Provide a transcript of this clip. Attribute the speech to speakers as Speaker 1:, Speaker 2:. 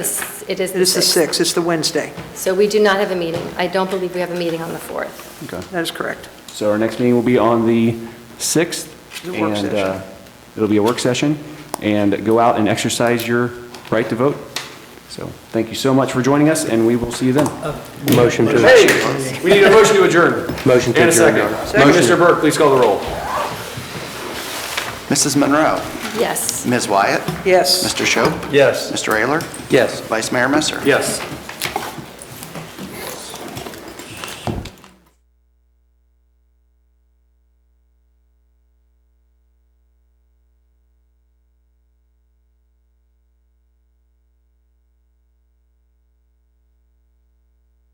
Speaker 1: It is the 6th.
Speaker 2: It is the 6th, it's the Wednesday.
Speaker 1: So we do not have a meeting. I don't believe we have a meeting on the 4th.
Speaker 3: Okay.
Speaker 2: That is correct.
Speaker 3: So our next meeting will be on the 6th.
Speaker 2: It's a work
Speaker 3: and,
Speaker 2: session.
Speaker 3: uh, It'll be a work session, and go out and exercise your right to vote. So thank you so much for joining us, and we will see you then.
Speaker 4: Motion to,
Speaker 3: Hey, we need a motion to adjourn.
Speaker 4: motion to
Speaker 3: And a
Speaker 4: adjourn.
Speaker 3: second.
Speaker 4: Motion.
Speaker 3: Mr. Burke, please call the roll.
Speaker 5: Mrs. Monroe.
Speaker 1: Yes.
Speaker 5: Ms. Wyatt.
Speaker 2: Yes.
Speaker 5: Mr. Shope.
Speaker 3: Yes.
Speaker 5: Mr. Ayler.
Speaker 4: Yes.
Speaker 5: Vice Mayor Messer.
Speaker 3: Yes.